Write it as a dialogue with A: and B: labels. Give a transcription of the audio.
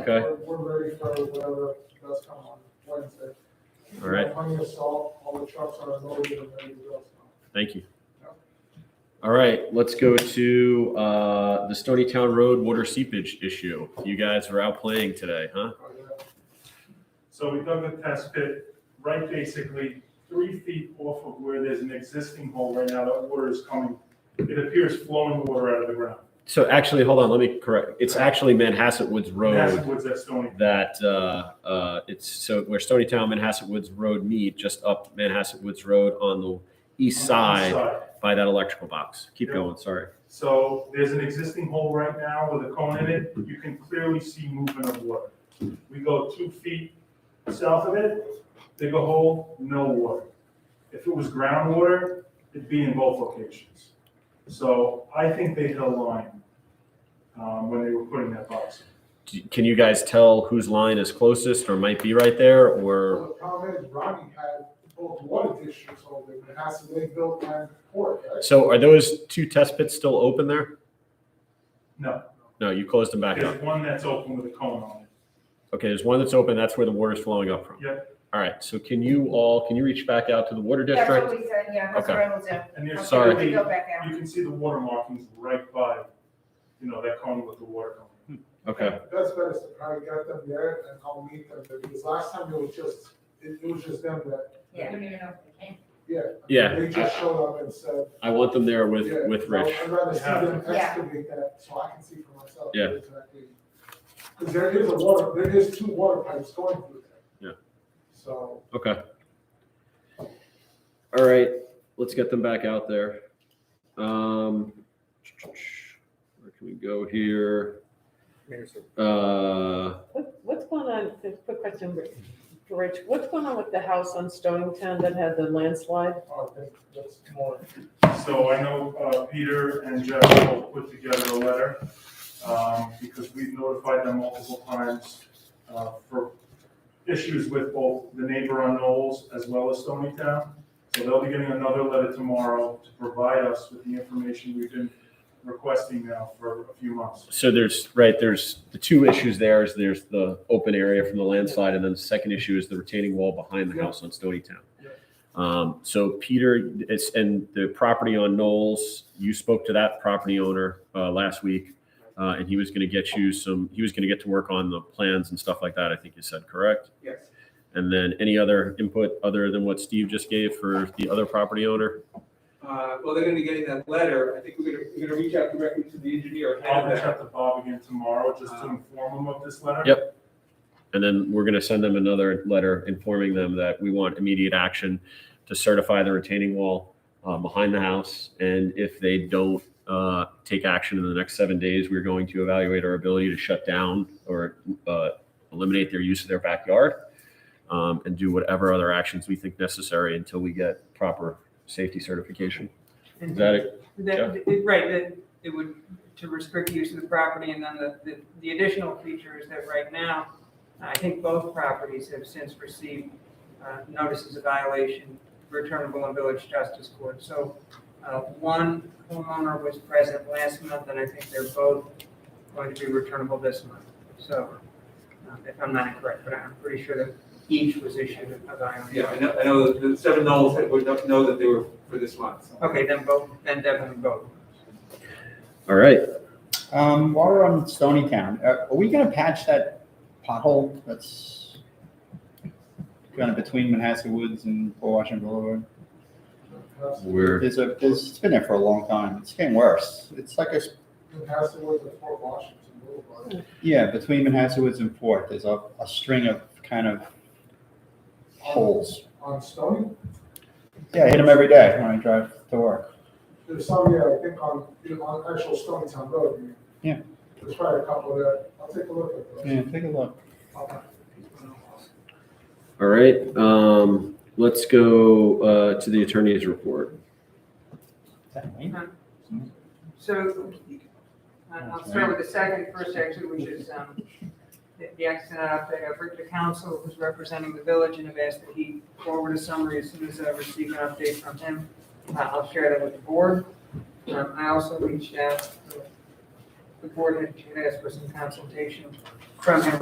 A: Okay.
B: We're- We're ready for whatever does come on Wednesday.
A: All right.
B: Plenty of salt, all the trucks are unloaded and ready to go.
A: Thank you. All right, let's go to uh, the Stony Town Road water seepage issue. You guys were out playing today, huh?
B: so, uh,
C: So we dug the test pit right basically three feet off of where there's an existing hole right now that water is coming. It appears flowing water out of the ground.
A: So actually, hold on, let me correct. It's actually Manhasset Woods
C: That's
A: Road
C: what's that stony.
A: that uh, uh, it's so where Stony Town Manhasset Woods Road meet, just up Manhasset Woods Road on the east side by that electrical box. Keep
C: Yeah.
A: going, sorry.
C: So there's an existing hole right now with a cone in it. You can clearly see movement of water. We go two feet south of it, dig a hole, no water. If it was groundwater, it'd be in both locations. So I think they held line um, when they were putting that box.
A: Do- Can you guys tell whose line is closest or might be right there
B: so
A: or?
B: The problem is Rodney had both water districts over there, Manhasset Lakeville and Port, right?
A: So are those two test pits still open there?
C: No,
A: No, you closed them back up.
C: there's one that's open with a cone on it.
A: Okay, there's one that's open, that's where the water's flowing up from.
C: Yep.
A: All right, so can you all, can you reach back out to the water
D: That's
A: district?
D: what we said, yeah, that's what I will do.
C: And
D: I'm
C: there's
A: Sorry.
D: gonna
C: clearly,
D: Go back out.
C: you can see the water markings right by, you know, that cone with the water coming.
A: Okay,
B: That's better, so probably get them there and I'll meet them, there, because last time it was just, it it was just them that,
D: Yeah.
B: yeah.
A: Yeah.
B: They just showed up and said,
A: I want them there with,
B: Yeah,
A: with
B: no,
A: Rich.
B: I'd rather see them
D: Yeah.
B: excavate that so I can see for myself.
A: Yeah.
B: Because there is a water, there is two water pipes going through there.
A: Yeah.
B: So,
A: Okay. All right, let's get them back out there. Um, where can we go here? Uh,
E: What, what's going on, a quick question, Rich- for Rich, what's going on with the house on Stonington that had the landslide?
B: I think uh, that's more,
C: So I know uh, Peter and Jeff will put together a letter, um, because we've notified them multiple times uh, for issues with both the neighbor on Knowles as well as Stony Town. So they'll be getting another letter tomorrow to provide us with the information we've been requesting now for a few months.
A: so there's, right, there's the two issues there is there's the open area from the landslide and then the second issue is the retaining wall behind the
B: Yeah.
A: house on Stony Town.
B: Yeah.
A: Um, so Peter, it's, and the property on Knowles, you spoke to that property owner, uh, last week. Uh, and he was gonna get you some, he was gonna get to work on the plans and stuff like that, I think you said, correct?
B: yes.
A: And then any other input other than what Steve just gave for the other property owner?
F: Uh, well, they're gonna be getting that letter, I think we're gonna, we're gonna reach out directly to the engineer,
C: I'll
F: hand
C: reach
F: that.
C: out to Bob again tomorrow just to inform him of this letter.
A: Yep. And then we're going to send them another letter informing them that we want immediate action to certify the retaining wall uh, behind the house. And if they don't uh, take action in the next seven days, we're going to evaluate our ability to shut down or uh, eliminate their use of their backyard um, and do whatever other actions we think necessary until we get proper safety certification. Is that it?
G: That, it- right, that it would, to restrict use of the property, and then the, the- the additional feature is that right now, I think both properties have since received uh, notices of violation, returnable in village justice court. So uh, one homeowner was present last month, and I think they're both going to be returnable this month. So, uh, if I'm not incorrect, but I'm pretty sure that each was issued a violation.
F: Yeah, I know, I know that the seven Knowles had, would not know that they were for this month.
G: Okay, then both, then definitely both.
A: All right.
H: Um, while we're on Stony Town, uh, are we gonna patch that pothole that's kind of between Manhasset Woods and Port Washington Boulevard?
B: Pass-
A: We're,
H: There's a, there's, it's been there for a long time. It's getting worse. It's like a, s-
B: then pass it with the Fort Washington Boulevard.
H: yeah, between Manhasset Woods and Port, there's a, a string of kind of holes.
B: On Stony,
H: Yeah, I hit them every day when I drive to work.
B: there's some, yeah, I think on, on actual Stony Town Road. I mean.
H: Yeah.
B: There's probably a couple there, I'll take a look at those.
H: Yeah, take a look.
B: Okay.
A: all right. Um, let's go uh, to the attorney's report.
H: Is that Wayne?
G: So uh, I'll start with the second, first section, which is um, the the accident update. I've written to counsel who's representing the village and have asked that he forward a summary as soon as I receive an update from him. Uh, I'll share that with the board. Um, I also reached out, to the board had asked for some consultation from him